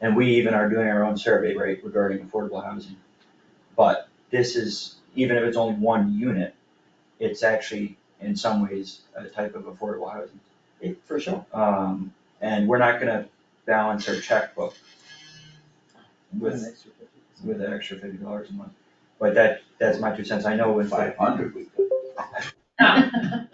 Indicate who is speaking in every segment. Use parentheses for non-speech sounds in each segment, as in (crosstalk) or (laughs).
Speaker 1: And we even are doing our own survey, right, regarding affordable housing. But this is, even if it's only one unit, it's actually in some ways a type of affordable housing.
Speaker 2: Eh, for sure.
Speaker 1: Um, and we're not gonna balance our checkbook
Speaker 2: An
Speaker 1: with,
Speaker 2: extra 50%.
Speaker 1: with an extra fifty dollars a month. But that, that's my two cents, I know with.
Speaker 3: Five hundred we could.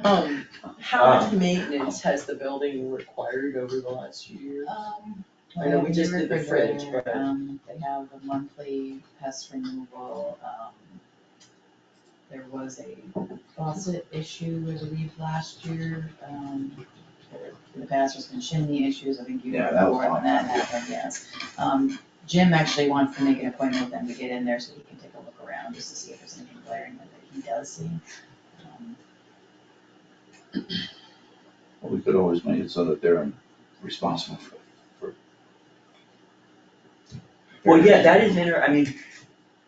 Speaker 2: Um, how
Speaker 1: Uh,
Speaker 2: much maintenance has the building required over the last few years?
Speaker 4: Um,
Speaker 2: I know we just did the fridge,
Speaker 4: refrigerator,
Speaker 2: but-
Speaker 4: Um, they have a monthly pest removal, um, there was a faucet issue, I believe, last year, um, there- in the past, there's been chimney issues, I think you
Speaker 3: Yeah,
Speaker 4: were
Speaker 3: that was
Speaker 4: born when
Speaker 3: long
Speaker 4: that
Speaker 3: time ago.
Speaker 4: happened, yes. Um, Jim actually wants to make an appointment with them to get in there so he can take a look around, just to see if there's anything glaring that he does see. Um,
Speaker 3: Well, We could always make it so that they're responsible for, for.
Speaker 1: Well, yeah, that is inter, I mean,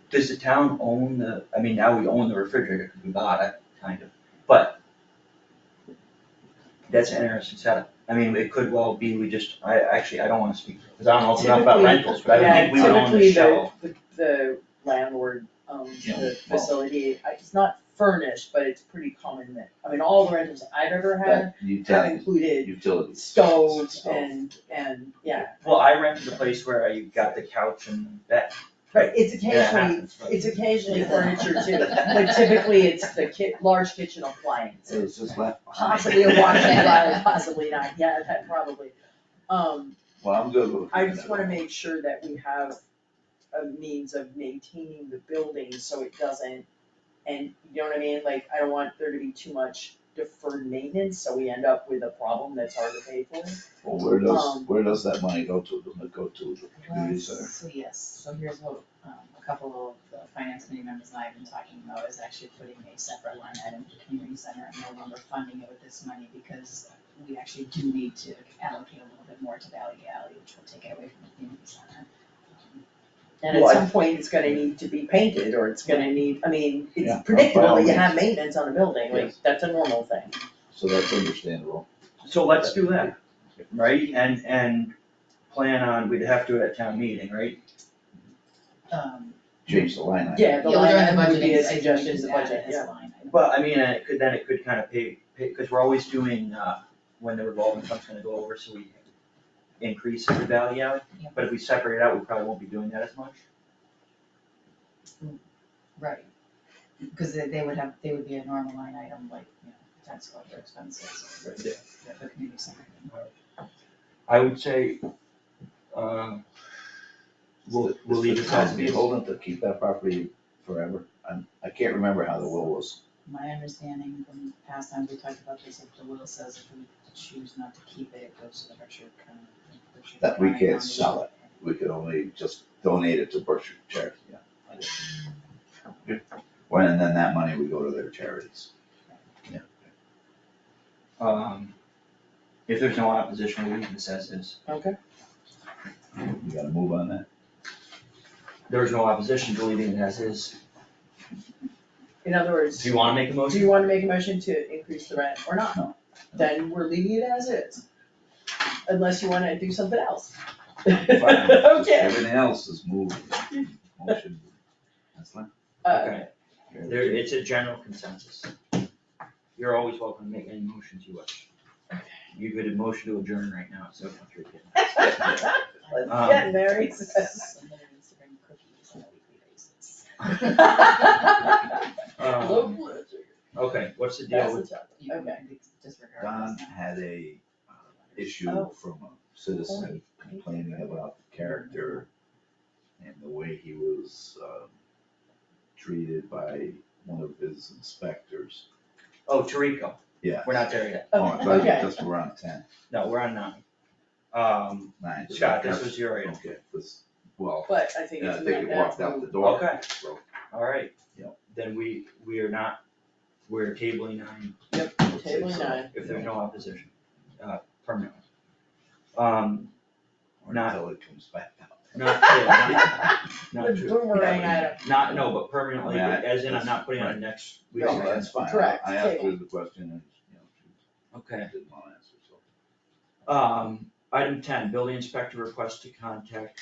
Speaker 1: does the town own the, I mean, now we own the refrigerator, because we bought it, kind of, but that's an interesting setup, I mean, it could well be, we just, I, actually, I don't wanna speak, cause I don't know enough about
Speaker 2: Typically-
Speaker 1: rentals, but I would think we would own the shell.
Speaker 2: Yeah, typically the, the landlord owns
Speaker 3: Yeah,
Speaker 2: the
Speaker 3: well-
Speaker 2: facility, I- it's not furnished, but it's pretty common that, I mean, all the rentals I've ever had
Speaker 3: That
Speaker 2: have
Speaker 3: utility,
Speaker 2: included
Speaker 3: utilities.
Speaker 2: stoves
Speaker 3: Stove.
Speaker 2: and, and, yeah.
Speaker 1: Well, I rented a place where I got the couch and that,
Speaker 2: Right, it's
Speaker 1: that
Speaker 2: occasionally,
Speaker 1: happens, but-
Speaker 2: it's occasionally furniture too, but typically it's the ki- large kitchen appliances.
Speaker 3: It was just left behind.
Speaker 2: Possibly a washing (laughs) dryer, possibly not, yeah, that probably. Um,
Speaker 3: Well, I'm good with.
Speaker 2: I just wanna make sure that we have a means of maintaining the building so it doesn't, and you know what I mean, like, I don't want there to be too much deferred maintenance, so we end up with a problem that's hard to pay for.
Speaker 3: Well, where does,
Speaker 2: um,
Speaker 3: where does that money go to, does it go to the community
Speaker 4: Well,
Speaker 3: center?
Speaker 4: So yes, so here's what, um, a couple of the finance committee members and I have been talking about is actually putting a separate line item for community center and no longer funding it with this money because we actually do need to allocate a little bit more to Valley Alley, which will take it away from the community center. Um,
Speaker 2: And at
Speaker 1: Well, I-
Speaker 2: some point, it's gonna need to be painted, or it's gonna need, I mean,
Speaker 3: Yeah, by all
Speaker 2: it's predictable, that you
Speaker 3: means.
Speaker 2: have maintenance on a building, like,
Speaker 3: Yes.
Speaker 2: that's a normal thing.
Speaker 3: So that's understandable.
Speaker 1: (laughs) So let's do that, right, and, and plan on, we'd have to do it at town meeting, right?
Speaker 4: Um,
Speaker 3: Change the line item.
Speaker 2: Yeah, the
Speaker 4: yeah, we're
Speaker 2: line
Speaker 4: doing the budget.
Speaker 2: item would be a
Speaker 4: so we
Speaker 2: suggestion
Speaker 4: can
Speaker 2: to
Speaker 4: add it
Speaker 2: budget,
Speaker 4: as a
Speaker 2: yeah.
Speaker 4: line item.
Speaker 1: But I mean, it could, then it could kind of pay, because we're always doing, uh, when the revolving fund's gonna go over, so we increase the value out.
Speaker 4: Yeah.
Speaker 1: But if we separate it out, we probably won't be doing that as much.
Speaker 4: Right, because they, they would have, they would be a normal line item like, you know, tax collector expenses or the, the community center.
Speaker 1: I would say, um, we'll, we'll leave it as
Speaker 3: Is
Speaker 1: it
Speaker 3: the town
Speaker 1: is.
Speaker 3: beholden to keep that property forever? I'm, I can't remember how the will was.
Speaker 4: My understanding from past times we talked about this, if the will says if we choose not to keep it, it goes to the Berkshire County. Berkshire
Speaker 3: That we
Speaker 4: County
Speaker 3: can't
Speaker 4: Foundation.
Speaker 3: sell it. We could only just donate it to Berkshire charity, yeah. When, and then that money would go to their charities.
Speaker 1: Um, if there's no opposition, we'll leave this as is.
Speaker 2: Okay.
Speaker 3: You gotta move on that.
Speaker 1: There's no opposition to leaving it as is.
Speaker 2: In other words,
Speaker 1: Do you wanna make a
Speaker 2: do
Speaker 1: motion?
Speaker 2: you wanna make a motion to increase the rent or not?
Speaker 3: No.
Speaker 2: Then we're leaving it as is. Unless you wanna do something else.
Speaker 3: Fine.
Speaker 2: (laughs) Okay,
Speaker 3: Everything else is moved. Motion. That's fine.
Speaker 2: uh,
Speaker 1: Okay, there, it's a general consensus. You're always welcome to make any motions you wish. You could motion to adjourn right now, so if you're kidding.
Speaker 2: let's
Speaker 1: Um,
Speaker 2: get married.
Speaker 4: Somebody needs to bring cookies on a weekly basis.
Speaker 1: Um, okay, what's the deal with,
Speaker 4: You can
Speaker 2: Okay.
Speaker 4: Disregard
Speaker 3: Don
Speaker 4: this now.
Speaker 3: had a uh, issue
Speaker 2: Oh.
Speaker 3: from a citizen complaining about the character and the way he was, um, treated by one of his inspectors.
Speaker 1: oh, Tariko,
Speaker 3: Yeah.
Speaker 1: we're not there yet,
Speaker 3: Oh, I thought you
Speaker 2: Okay.
Speaker 3: just were on ten,
Speaker 1: no, we're on nine. Um,
Speaker 3: nine. so
Speaker 1: Scott, this
Speaker 3: that's-
Speaker 1: was your item,
Speaker 3: Okay, this, well,
Speaker 2: But I think
Speaker 3: yeah,
Speaker 2: it's.
Speaker 3: I think it
Speaker 2: not
Speaker 3: walked
Speaker 2: that
Speaker 3: out the
Speaker 2: moved.
Speaker 3: door.
Speaker 1: Okay.
Speaker 3: So,
Speaker 1: alright.
Speaker 3: Yep.
Speaker 1: Then we, we are not, we're tabling nine,
Speaker 3: I'll say
Speaker 2: Table
Speaker 3: so.
Speaker 2: nine.
Speaker 1: if there's no opposition, uh, permanently. Um,
Speaker 3: Or
Speaker 1: Not-
Speaker 3: Until it comes back out.
Speaker 1: not, yeah, not,
Speaker 2: (laughs)
Speaker 1: not
Speaker 2: The
Speaker 1: true.
Speaker 2: boomerang item.
Speaker 1: Not, no, but permanently,
Speaker 3: Yeah,
Speaker 1: as in I'm
Speaker 3: that's-
Speaker 1: not putting on
Speaker 3: right.
Speaker 1: next week's.
Speaker 3: No, that's fine. I-
Speaker 2: Correct,
Speaker 3: I asked
Speaker 2: table.
Speaker 3: her the question and, you know,
Speaker 1: Okay.
Speaker 3: she didn't want to answer, so.
Speaker 1: Um, item ten, building inspector request to contact